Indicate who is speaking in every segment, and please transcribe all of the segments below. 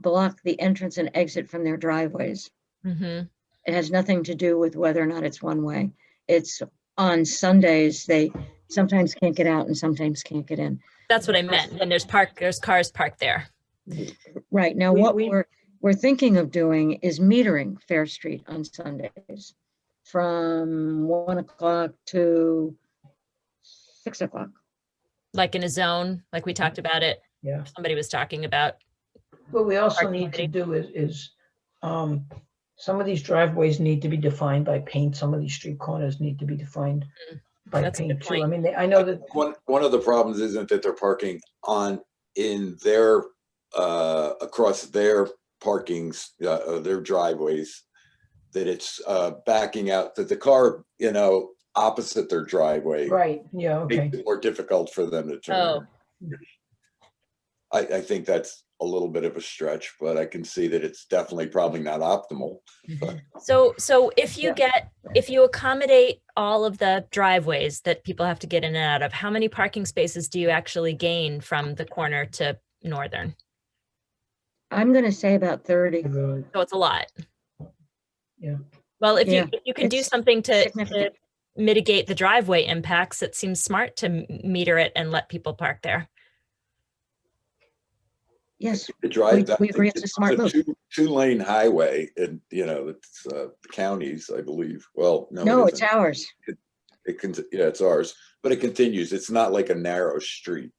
Speaker 1: block the entrance and exit from their driveways.
Speaker 2: hmm
Speaker 1: It has nothing to do with whether or not it's one way. It's on Sundays, they sometimes can't get out and sometimes can't get in.
Speaker 2: That's what I meant. And there's park, there's cars parked there.
Speaker 1: Right, now
Speaker 3: We-
Speaker 1: what
Speaker 3: we-
Speaker 1: we're, we're thinking of doing is metering Fair Street on Sundays from one o'clock to six o'clock.
Speaker 2: like in a zone, like we talked about it.
Speaker 3: Yeah.
Speaker 2: Somebody was talking about.
Speaker 3: What we also
Speaker 2: Park
Speaker 3: need
Speaker 2: committee.
Speaker 3: to do is, is, um, some of these driveways need to be defined by paint, some of these street corners need to be defined
Speaker 2: Mm,
Speaker 3: by
Speaker 2: that's a good
Speaker 3: paint too. I
Speaker 2: point.
Speaker 3: mean, they- I know that,
Speaker 4: One, one of the problems isn't that they're parking on, in their, uh, across their parkings, uh, uh, their driveways. That it's, uh, backing out, that the car, you know, opposite their driveway.
Speaker 3: right, yeah, okay.
Speaker 4: Makes it more difficult for them to
Speaker 2: Oh.
Speaker 4: turn. I, I think that's a little bit of a stretch, but I can see that it's definitely probably not optimal.
Speaker 2: So, so if you
Speaker 3: Yeah.
Speaker 2: get, if you accommodate all of the driveways that people have to get in and out of, how many parking spaces do you actually gain from the corner to northern?
Speaker 1: I'm gonna say about thirty.
Speaker 2: So it's a lot.
Speaker 3: Yeah.
Speaker 2: Well, if
Speaker 1: Yeah,
Speaker 2: you, if you can do
Speaker 1: it's
Speaker 2: something to- to
Speaker 1: significant.
Speaker 2: mitigate the driveway impacts, it seems smart to m- meter it and let people park there.
Speaker 1: Yes,
Speaker 4: The drive-
Speaker 1: We-
Speaker 4: that-
Speaker 1: we agree it's a smart move.
Speaker 4: two- Two-lane highway and, you know, it's, uh, counties, I believe. Well, no. it
Speaker 1: no, it's
Speaker 4: isn't.
Speaker 1: ours.
Speaker 4: It can, yeah, it's ours, but it continues. It's not like a narrow street.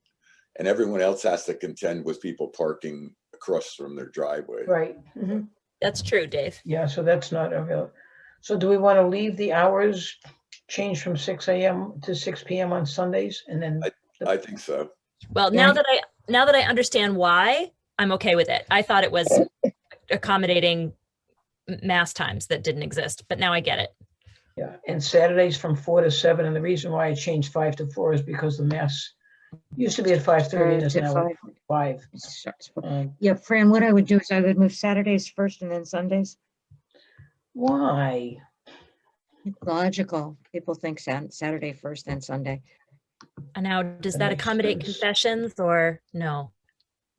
Speaker 4: And everyone else has to contend with people parking across from their driveway.
Speaker 3: Right, mhm.
Speaker 2: That's true, Dave.
Speaker 3: yeah, so that's not available. So do we want to leave the hours changed from six AM to six PM on Sundays and then,
Speaker 4: I think so.
Speaker 2: Well,
Speaker 1: Yeah.
Speaker 2: now that I, now that I understand why, I'm okay with it. I thought it was accommodating m- mass times that didn't exist, but now I get it.
Speaker 3: yeah, and Saturdays from four to seven? And the reason why I changed five to four is because the mass used to be at five thirty and
Speaker 1: Uh,
Speaker 3: is
Speaker 1: to
Speaker 3: now at
Speaker 1: five.
Speaker 3: five.
Speaker 1: It's- it's-
Speaker 3: Um,
Speaker 1: Yeah, Fran, what I would do is I would move Saturdays first and then Sundays.
Speaker 3: Why?
Speaker 1: Logical. People think Sat- Saturday first, then Sunday.
Speaker 2: And now, does
Speaker 3: That
Speaker 2: that
Speaker 3: makes
Speaker 2: accommodate
Speaker 3: sense.
Speaker 2: confessions or no?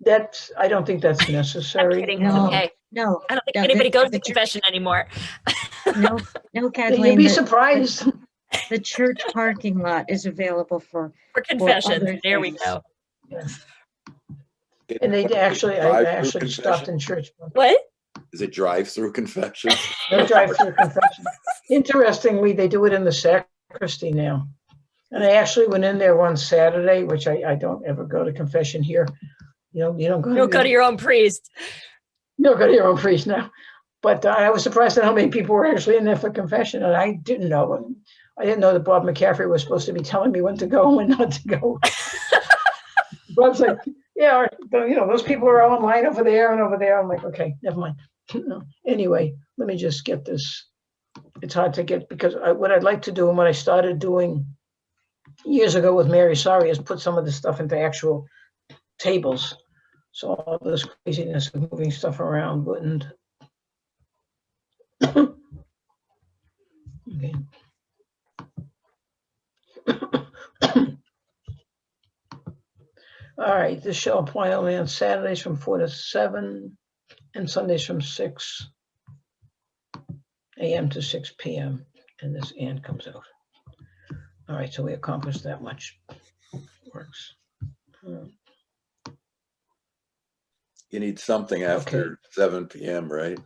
Speaker 3: That's, I don't think that's
Speaker 2: I'm
Speaker 3: necessary.
Speaker 2: kidding.
Speaker 1: No.
Speaker 2: It's
Speaker 3: Um,
Speaker 2: okay.
Speaker 1: No,
Speaker 2: I don't think
Speaker 1: Yeah,
Speaker 2: anybody
Speaker 1: the-
Speaker 2: goes
Speaker 1: the
Speaker 2: to
Speaker 1: church-
Speaker 2: confession anymore.
Speaker 1: no, no,
Speaker 3: You'd
Speaker 1: Kathleen.
Speaker 3: be
Speaker 1: The
Speaker 3: surprised.
Speaker 1: the church parking lot is available for,
Speaker 2: For confessions,
Speaker 1: other
Speaker 2: there we
Speaker 1: things.
Speaker 2: go.
Speaker 3: And they actually, I I
Speaker 4: Drive-through
Speaker 3: actually stopped in church.
Speaker 2: What?
Speaker 4: Is it drive-through confession?
Speaker 3: No drive-through confession. Interestingly, they do it in the sacristy now. And I actually went in there one Saturday, which I, I don't ever go to confession here. You know, you don't go.
Speaker 2: You don't go to your own priest.
Speaker 3: You don't go to your own priest now. But uh, I was surprised at how many people were actually in there for confession and I didn't know. And I didn't know that Bob McCaffrey was supposed to be telling me when to go and when not to go. Bob's like, yeah, all right, though, you know, those people are all in line over there and over there. I'm like, okay, never mind. Anyway, let me just get this. It's hard to get because I, what I'd like to do and what I started doing years ago with Mary Sorry is put some of this stuff into actual tables. So all this craziness of moving stuff around wouldn't. Okay. All right, this shall apply only on Saturdays from four to seven and Sundays from six AM to six PM, and this and comes out. All right, so we accomplished that much. Works. Uh,
Speaker 4: You need something after seven PM, right?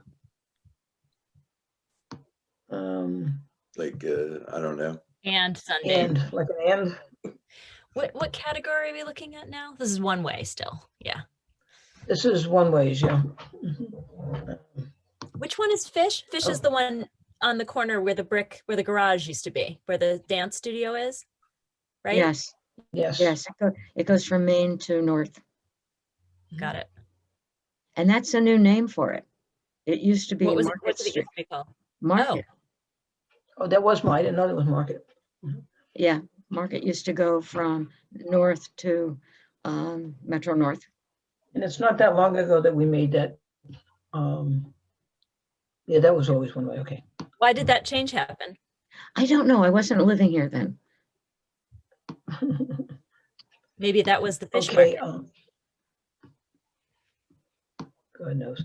Speaker 3: Um,
Speaker 4: Like, uh, I don't know.
Speaker 2: And Sunday.
Speaker 3: and, like an and,
Speaker 2: What, what category are we looking at now? This is one way still. Yeah.
Speaker 3: this is one ways, yeah. Mhm.
Speaker 2: Which one is Fish? Fish
Speaker 1: Oh.
Speaker 2: is the one on the corner where the brick, where the garage used to be, where the dance studio is, right?
Speaker 1: yes,
Speaker 3: Yes.
Speaker 1: yes. it go- It goes from Maine to North.
Speaker 2: Got it.
Speaker 1: And that's a new name for it. It used to be
Speaker 2: What was it?
Speaker 1: Market
Speaker 2: What did it
Speaker 1: Street.
Speaker 2: used to be called?
Speaker 1: Market,
Speaker 3: Oh, that was mine. I didn't know that was market.
Speaker 1: yeah. Market used to go from north to um, Metro North.
Speaker 3: And it's not that long ago that we made that. Um, yeah, that was always one way. Okay.
Speaker 2: Why did that change happen?
Speaker 1: I don't know. I wasn't living here then.
Speaker 2: Maybe that was the fish
Speaker 3: um, okay.
Speaker 2: market.
Speaker 3: Um, God knows.